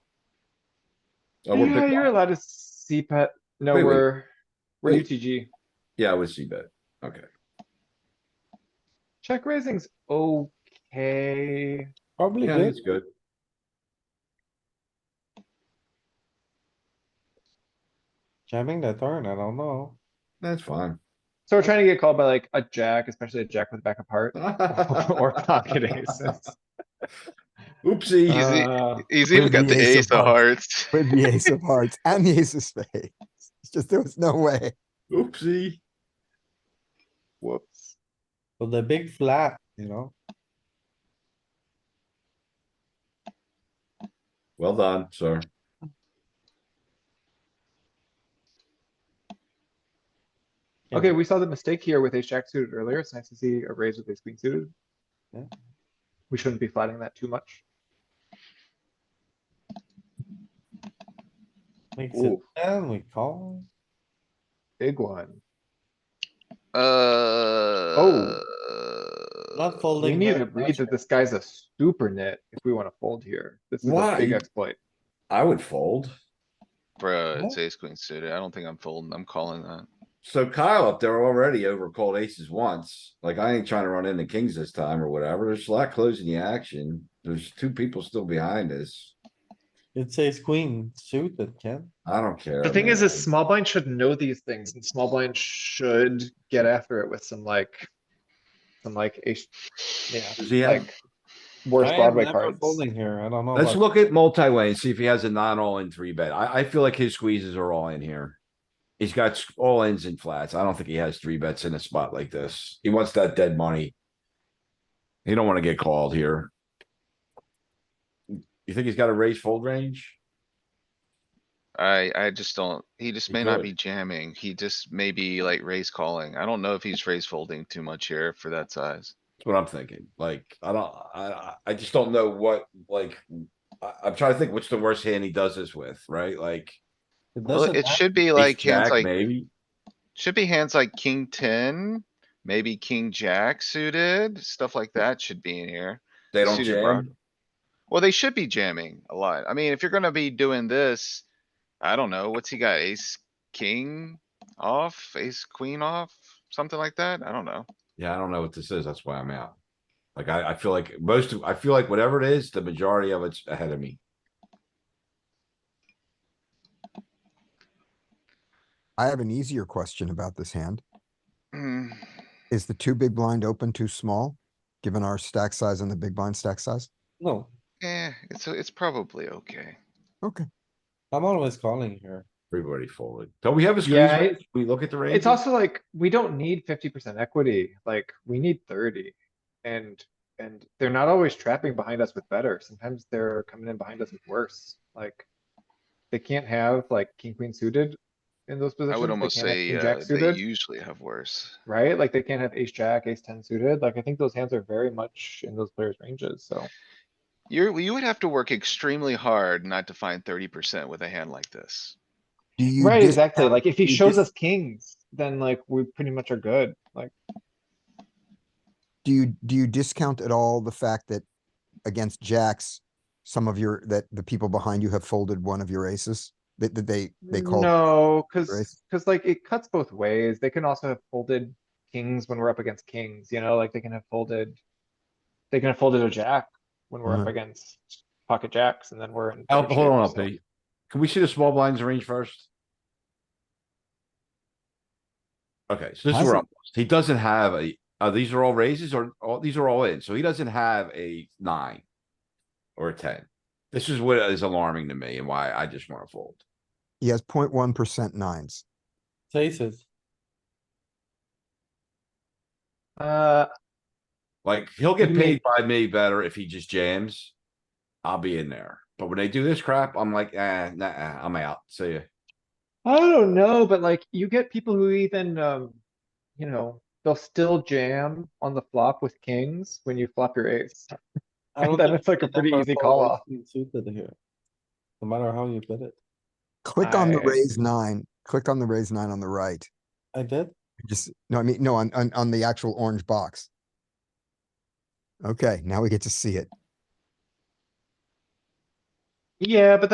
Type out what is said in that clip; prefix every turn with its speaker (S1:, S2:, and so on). S1: Oh, we're
S2: Yeah,
S1: big
S2: you're
S1: blind.
S2: allowed to CPET. No,
S1: Wait, wait.
S2: we're, we're
S1: Wait.
S2: UTG.
S1: Yeah, with c-bet. Okay.
S2: Check raising's okay.
S3: Probably
S1: Yeah,
S3: good.
S1: it's good.
S3: Jamming the turn, I don't know.
S1: That's fine.
S2: So we're trying to get called by like a jack, especially a jack with back apart or pocket aces.
S1: Oopsie.
S4: Easy.
S2: Uh,
S4: He's even
S5: With
S4: got
S5: the
S4: the
S5: ace
S4: ace
S5: of
S4: of hearts.
S5: with the ace of hearts and the ace of spades. It's just there was no way.
S1: Oopsie.
S4: Whoops.
S3: But the big flat, you know,
S1: Well done, sir.
S3: Yeah.
S2: Okay, we saw the mistake here with ace jack suited earlier. It's nice to see a raise with ace queen suited.
S3: Yeah.
S2: We shouldn't be flatting that too much.
S3: makes it
S1: Ooh.
S3: ten, we call.
S2: Big one.
S4: Uh.
S3: Not
S2: We
S3: folding.
S2: need
S3: very
S2: to read
S3: much.
S2: that this guy's a super nit if we wanna fold here. This is a
S1: Why?
S2: big exploit.
S1: I would fold.
S4: Bruh, it's
S3: What?
S4: ace queen suited. I don't think I'm folding. I'm calling that.
S1: So Kyle up there already over called aces once. Like I ain't trying to run into kings this time or whatever. There's a lot closing the action. There's two people still behind us.
S3: It says queen suited, Ken.
S1: I don't care.
S2: The thing is,
S1: man.
S2: is small blind should know these things and small blind should get after it with some like, some like, ace- yeah,
S1: Does he have?
S2: like worse
S3: I am
S2: Broadway
S3: never
S2: cards.
S3: Folding here, I don't know.
S1: Let's
S3: about-
S1: look at multi-way and see if he has a non-all in three bet. I, I feel like his squeezes are all in here. He's got s- all ins and flats. I don't think he has three bets in a spot like this. He wants that dead money. He don't wanna get called here. You think he's got a raise fold range?
S4: I, I just don't, he just
S1: He
S4: may not
S1: could.
S4: be jamming. He just may be like raise calling. I don't know if he's raise folding too much here for that size.
S1: That's what I'm thinking. Like, I don't, I, I- I just don't know what, like, I, I'm trying to think what's the worst hand he does this with, right? Like.
S3: It
S4: Well,
S3: doesn't
S4: it
S3: matter.
S4: should be like hands
S1: ace-jack,
S4: like
S1: Maybe,
S4: Should be hands like king ten, maybe king jack suited, stuff like that should be in here.
S1: they don't
S4: suited
S1: jam.
S4: broad- Well, they should be jamming a lot. I mean, if you're gonna be doing this, I don't know, what's he got? Ace, king off, ace, queen off, something like that? I don't know.
S1: Yeah, I don't know what this is. That's why I'm out. Like, I, I feel like most of, I feel like whatever it is, the majority of it's ahead of me.
S5: I have an easier question about this hand.
S4: Hmm,
S5: Is the two big blind open too small? Given our stack size and the big blind stack size?
S3: No,
S4: Eh, it's, it's probably okay.
S5: Okay,
S3: I'm always calling here.
S1: Everybody folded. Don't we have a squeeze?
S2: Yeah,
S1: range? We look at the range.
S2: It's also like, we don't need fifty percent equity, like, we need thirty. And, and they're not always trapping behind us with better. Sometimes they're coming in behind us with worse, like. They can't have like king, queen suited in those positions.
S4: I would
S2: They
S4: almost
S2: can't have
S4: say,
S2: king,
S4: uh,
S2: jack
S4: they
S2: suited.
S4: usually have worse.
S2: right? Like they can't have ace jack, ace ten suited. Like I think those hands are very much in those players' ranges, so.
S4: You're, you would have to work extremely hard not to find thirty percent with a hand like this.
S5: do you?
S2: Right,
S5: dis-
S2: exactly. Like if he
S5: you
S2: shows
S5: dis-
S2: us kings, then like we pretty much are good. Like,
S5: Do you, do you discount at all the fact that against jacks, some of your, that the people behind you have folded one of your aces? That, that they, they call?
S2: no,
S5: raise.
S2: cuz, cuz like it cuts both ways. They can also have folded kings when we're up against kings, you know, like they can have folded. They can have folded a jack when we're up
S5: Mhm.
S2: against pocket jacks and then we're in.
S1: Al-
S2: better
S1: Oh, Hold on,
S2: shape, so-
S1: LP. Can we see the small blinds range first? Okay, so this is where I'm, he doesn't have a, uh, these are all raises or, all these are all in, so he doesn't have a nine. Or a ten. This is what is alarming to me and why I just wanna fold.
S5: He has 0.1 percent nines.
S3: It's aces.
S2: Uh,
S1: Like, he'll get
S2: What do you mean?
S1: paid by me better if he just jams. I'll be in there, but when they do this crap, I'm like, eh, nah, I'm out, see ya.
S2: I don't know, but like you get people who even, um, you know, they'll still jam on the flop with kings when you flop your ace.
S3: I don't
S2: Then
S3: think
S2: it's like a
S3: you can
S2: pretty
S3: ever
S2: easy
S3: fold
S2: call
S3: ace
S2: off.
S3: queen Suited here. No matter how you put it.
S5: Click on the
S2: I-
S5: raise nine, click on the raise nine on the right.
S3: I did.
S5: Just, no, I mean, no, on, on, on the actual orange box. Okay, now we get to see it.
S2: Yeah, but